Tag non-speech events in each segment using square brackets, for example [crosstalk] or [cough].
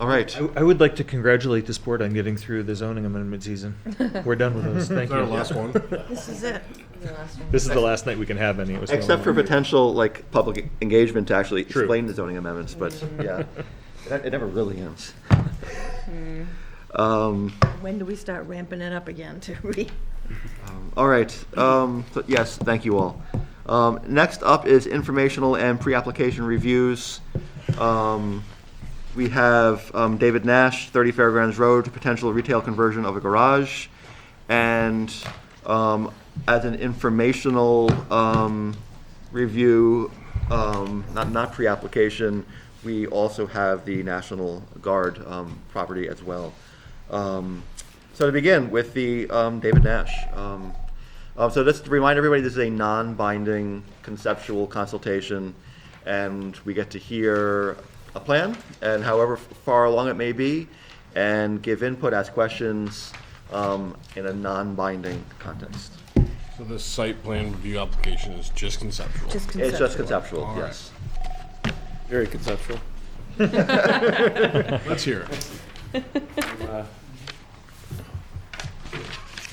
All right. I, I would like to congratulate this board on getting through the zoning amendment [laughs] season. We're done with those, thank you. our last one. This is it. This is the last night we can have any. It was the Except for only one. potential, like, public engagement to actually True. explain the zoning amendments, [laughs] but, yeah. It it never really ends. Hmm. Um, When do we start ramping it up again to [laughs] read? um, All right, um, so yes, thank you all. Um, Next up is informational and pre-application reviews. Um, We have um, David Nash, 30 Fairgrounds Road, potential retail conversion of a garage. And um, as an informational um, review, um, not, not pre-application, we also have the National Guard um, property as well. Um, So to begin with the um, David Nash. um, uh, So just to remind everybody, this is a non-binding conceptual consultation, and we get to hear a plan, and however far along it may be, and give input, ask questions um, in a non-binding context. So this site plan review application is just conceptual. Just It's just conceptual. conceptual, All right. yes. Very conceptual. Let's hear it.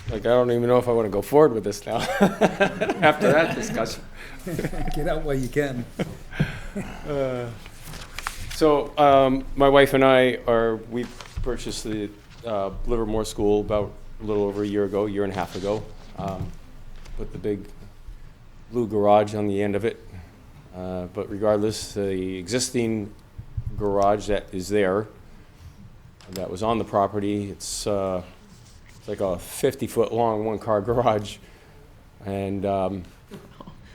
Like, I don't even know if I want to go forward with this now, [laughs] after that discussion. [laughs] Get out while you can. So, um, my wife and I are, we purchased the, uh, Livermore School about a little over a year ago, year and a half ago. Um, Put the big blue garage on the end of it. Uh, but regardless, the existing garage that is there, that was on the property, it's, uh, it's like a fifty-foot long, one-car garage. And, um,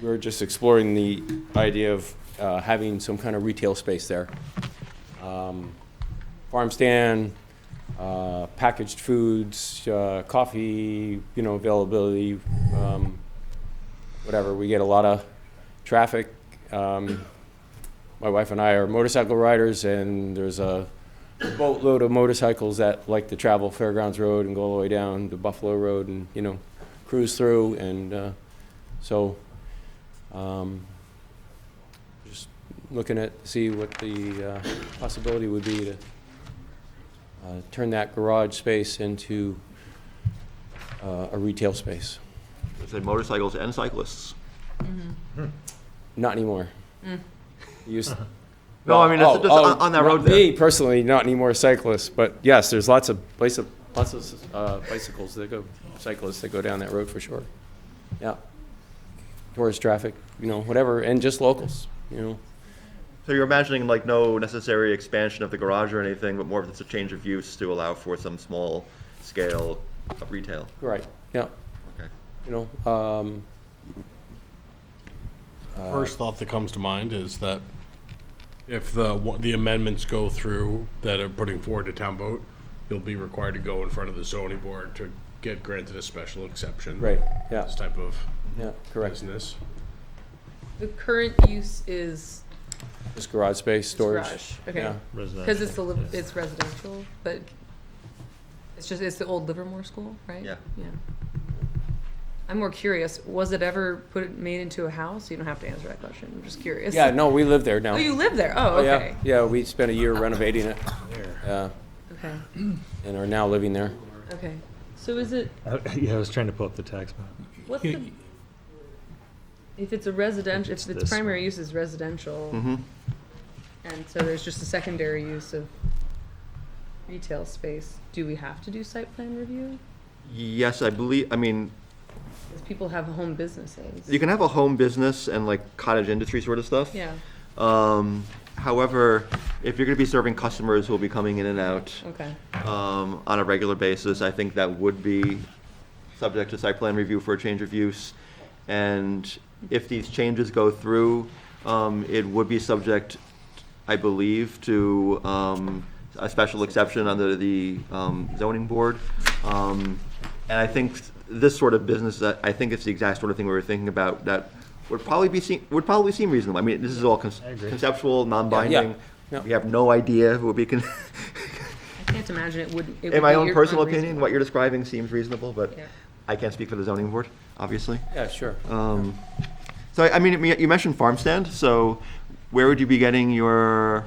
we were just exploring the idea of uh, having some kind of retail space there. Um, Farm stand, uh, packaged foods, uh, coffee, you know, availability, um, whatever. We get a lot of traffic. Um, My wife and I are motorcycle riders, and there's a boatload of motorcycles that like to travel Fairgrounds Road and go all the way down to Buffalo Road and, you know, cruise through, and uh, so um, Just looking at, see what the uh, possibility would be to uh, turn that garage space into uh, a retail space. It's a motorcycles and cyclists. Not anymore. You s- Mm. [laughs] No, I mean, it's Oh, just oh, on on that not road there. Me personally, not anymore cyclists, but yes, there's lots of bicyc- lots of uh, bicycles that go, cyclists that go down that road for sure. Yeah. Tourist traffic, you know, whatever, and just locals, you know. So you're imagining like no necessary expansion of the garage or anything, but more of just a change of use to allow for some small scale of retail. Right, yeah. Okay. you know, um, Uh, First thought that comes to mind is that if the, wa- the amendments go through that are putting forward to town vote, you'll be required to go in front of the zoning board to get granted a special exception. right, yeah, This type of yeah, correct. business. The current use is This garage space, storage. garage, okay, yeah. because Residential. it's the, li- it's residential, but it's just, it's the old Livermore School, right? Yeah. Yeah. I'm more curious, was it ever put, made into a house? You don't have to answer that question, I'm just curious. Yeah, no, we live there now. Oh, you live there, oh, Oh, yeah, okay, Yeah, we spent a year renovating it, uh, okay, and are now living there. okay. So is it, Uh, Yeah, I was trying to pull up the tax map. what's the, if it's a residential, if It's its this primary one. use is residential, Mm-hmm. Mhm. and so there's just a secondary use of retail space, do we have to do site plan review? Yes, I believe, I mean, Because people have home businesses. you can have a home business and like cottage industry sort of stuff. Yeah, Um, however, if you're gonna be serving customers who will be coming in and out, okay. um, on a regular basis, I think that would be subject to site plan review for a change of use. And if these changes go through, um, it would be subject, I believe, to, um, a special exception under the, um, zoning board. Um, and I think this sort of business, that, I think it's the exact sort of thing we were thinking about, that would probably be seen, would probably seem reasonable. I mean, this is all con- conceptual, non-binding. yeah. We have no idea who would be con- [laughs] I can't imagine it wouldn't. it would in my be own ir- personal opinion, unreasonable. what you're describing seems reasonable, but Yeah. I can't speak for the zoning board, obviously. Yeah, sure. Um, So, I mean, you mentioned farm stand, so where would you be getting your